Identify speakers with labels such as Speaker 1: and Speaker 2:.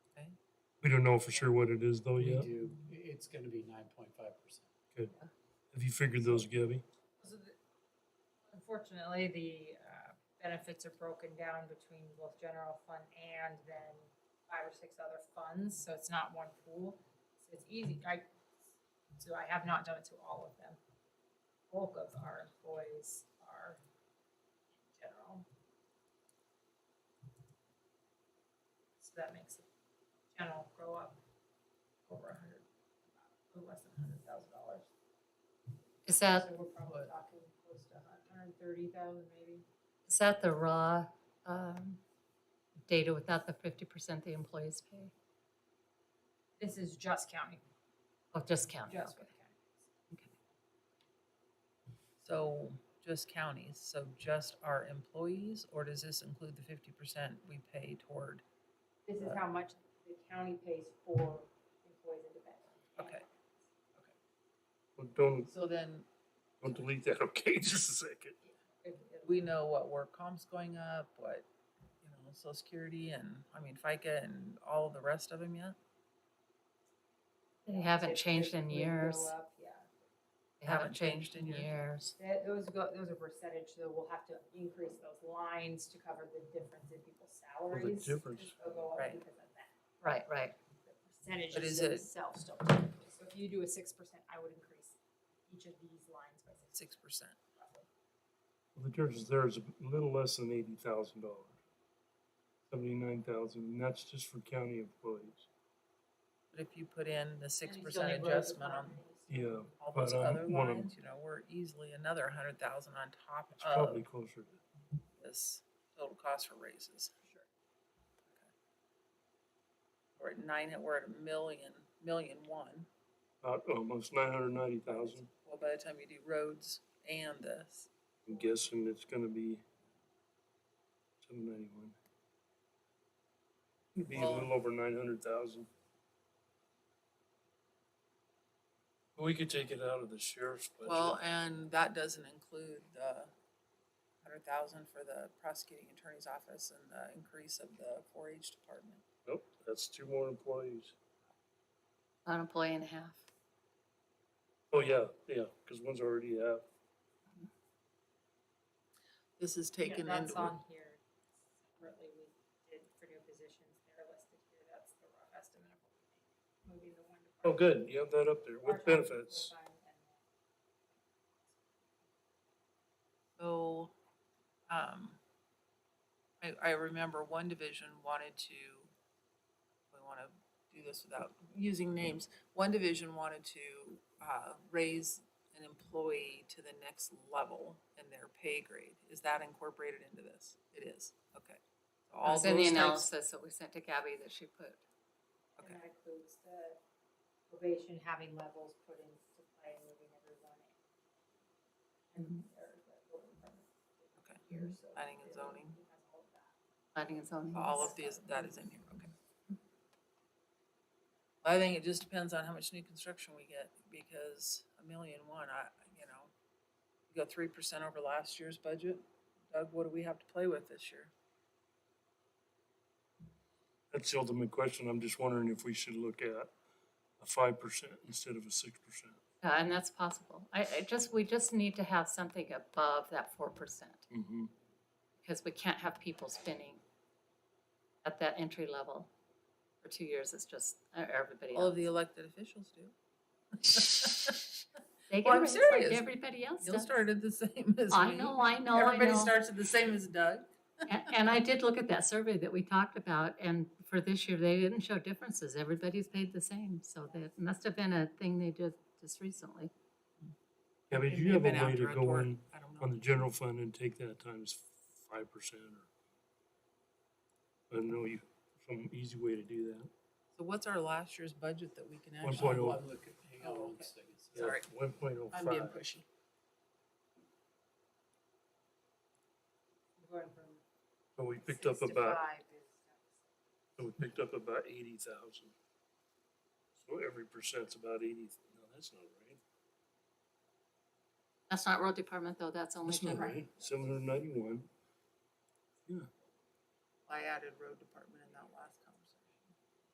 Speaker 1: We don't know for sure what it is though
Speaker 2: We
Speaker 1: yet.
Speaker 2: do, i- it's gonna be nine point five percent.
Speaker 1: Have you figured those, Gabby?
Speaker 3: So the- Unfortunately, the uh, benefits are broken down between both general fund and then five or six other funds, so it's not one pool. So it's easy, I, so I have not done it to all of them. Bulk of our employees are in general. So that makes the general grow up over a hundred, a little less than a hundred thousand dollars.
Speaker 4: Is that,
Speaker 3: So we're probably talking close to a hundred and thirty thousand maybe.
Speaker 4: is that the raw um, data without the fifty percent the employees pay?
Speaker 3: This is just county,
Speaker 4: Oh, just county.
Speaker 3: just
Speaker 4: okay.
Speaker 3: with county.
Speaker 5: So just counties, so just our employees, or does this include the fifty percent we pay toward?
Speaker 3: This is
Speaker 5: Right.
Speaker 3: how much the county pays for employees and dependents.
Speaker 5: Okay.
Speaker 1: Well, Don't,
Speaker 5: So then
Speaker 1: don't delete that, okay, just a second.
Speaker 3: If- if-
Speaker 5: we know what work comp's going up, what, you know, social security and, I mean, FICA and all the rest of them yet?
Speaker 4: They
Speaker 3: yeah,
Speaker 4: haven't
Speaker 3: if-
Speaker 4: changed
Speaker 3: if
Speaker 4: in
Speaker 3: we go
Speaker 4: years.
Speaker 3: up, Yeah,
Speaker 4: They haven't changed in
Speaker 5: years.
Speaker 4: years.
Speaker 3: that, those go, those are percentage, so we'll have to increase those lines to cover the difference in people's salaries.
Speaker 1: difference.
Speaker 3: They'll go up
Speaker 5: Right.
Speaker 3: because of that.
Speaker 4: Right, right.
Speaker 3: The
Speaker 5: But
Speaker 3: percentages
Speaker 5: is it-
Speaker 3: themselves don't. change. So if you do a six percent, I would increase each of these lines by six
Speaker 5: Six percent.
Speaker 3: roughly.
Speaker 1: Well, The difference there is a little less than eighty thousand dollars. Seventy-nine thousand, and that's just for county employees.
Speaker 5: But if you put in the six
Speaker 3: And it's only grows
Speaker 5: percent
Speaker 3: with
Speaker 5: adjustment on
Speaker 3: properties.
Speaker 1: Yeah,
Speaker 5: all
Speaker 1: but
Speaker 5: those
Speaker 1: I'm
Speaker 5: other
Speaker 1: one of-
Speaker 5: lines, you know, we're easily another hundred thousand on top
Speaker 1: it's
Speaker 5: of
Speaker 1: probably closer.
Speaker 5: this total cost for raises.
Speaker 3: Sure.
Speaker 5: We're at nine, we're at a million, million one.
Speaker 1: About almost nine hundred ninety thousand.
Speaker 5: Well, by the time you do roads and this,
Speaker 1: I'm guessing it's gonna be seven ninety-one. It'd be a
Speaker 5: Well-
Speaker 1: little over nine hundred thousand. We could take it out of the sheriff's budget.
Speaker 5: well, and that doesn't include the hundred thousand for the prosecuting attorney's office and the increase of the four H department.
Speaker 1: Nope, that's two more employees.
Speaker 4: An employee and a half.
Speaker 1: Oh, yeah, yeah, cause one's already out.
Speaker 5: This is
Speaker 3: Yeah,
Speaker 5: taken
Speaker 3: That's
Speaker 5: into,
Speaker 3: on here separately, we did for new positions, they're listed here, that's the rough estimate of what we think. Moving the one
Speaker 1: Oh,
Speaker 3: department-
Speaker 1: good, you have that up there with
Speaker 3: our department to
Speaker 1: benefits.
Speaker 3: full-time and-
Speaker 5: so, um, I, I remember one division wanted to, we wanna do this without using names. One division wanted to, uh, raise an employee to the next level in their pay grade. Is that incorporated into this? It is, okay. So all
Speaker 4: It's in the
Speaker 5: those types-
Speaker 4: analysis that we sent to Gabby that she put.
Speaker 5: Okay.
Speaker 3: And that includes the probation, having levels put into play, moving everyone in.
Speaker 1: Mm-hmm.
Speaker 3: And there's the building permit
Speaker 5: Okay.
Speaker 3: here, so
Speaker 5: Planning and
Speaker 3: it
Speaker 5: zoning.
Speaker 3: has all of that.
Speaker 4: Planning and zoning.
Speaker 5: All of these, that is in here, okay. I think it just depends on how much new construction we get, because a million one, I, you know, you go three percent over last year's budget, Doug, what do we have to play with this year?
Speaker 1: That's the ultimate question, I'm just wondering if we should look at a five percent instead of a six percent.
Speaker 4: Yeah, and that's possible. I, I just, we just need to have something above that four percent.
Speaker 1: Mm-hmm.
Speaker 4: because we can't have people spinning at that entry level for two years. It's just uh, everybody
Speaker 5: All of
Speaker 4: else.
Speaker 5: the elected officials do.
Speaker 4: They
Speaker 5: Well,
Speaker 4: get
Speaker 5: I'm
Speaker 4: raised like
Speaker 5: serious.
Speaker 4: everybody else
Speaker 5: You'll
Speaker 4: does.
Speaker 5: start at the same as me.
Speaker 4: I know, I know, I
Speaker 5: Everybody
Speaker 4: know.
Speaker 5: starts at the same as Doug.
Speaker 4: And, and I did look at that survey that we talked about, and for this year, they didn't show differences. Everybody's paid the same, so that must have been a thing they did just recently.
Speaker 1: Yeah, but
Speaker 5: It
Speaker 1: you
Speaker 5: may
Speaker 1: have a
Speaker 5: been
Speaker 1: way
Speaker 5: after
Speaker 1: to
Speaker 5: a
Speaker 1: go
Speaker 5: tort,
Speaker 1: in
Speaker 5: I don't know.
Speaker 1: on the general fund and take that times five percent or. I know you, some easy way to do that.
Speaker 5: So what's our last year's budget that we can
Speaker 1: One
Speaker 5: actually?
Speaker 1: point oh.
Speaker 2: I'm looking, hang on one
Speaker 5: Oh, okay.
Speaker 2: second.
Speaker 1: Yeah,
Speaker 5: Sorry.
Speaker 1: One point oh
Speaker 5: I'm being
Speaker 1: five.
Speaker 5: pushy.
Speaker 3: Going from
Speaker 1: So we picked up
Speaker 3: six to
Speaker 1: about,
Speaker 3: five is-
Speaker 1: so we picked up about eighty thousand. So every percent's about eighty, no, that's not right.
Speaker 4: That's not road department, though. That's only
Speaker 1: That's not
Speaker 4: general.
Speaker 1: right. Seven hundred ninety-one.
Speaker 5: I added road department in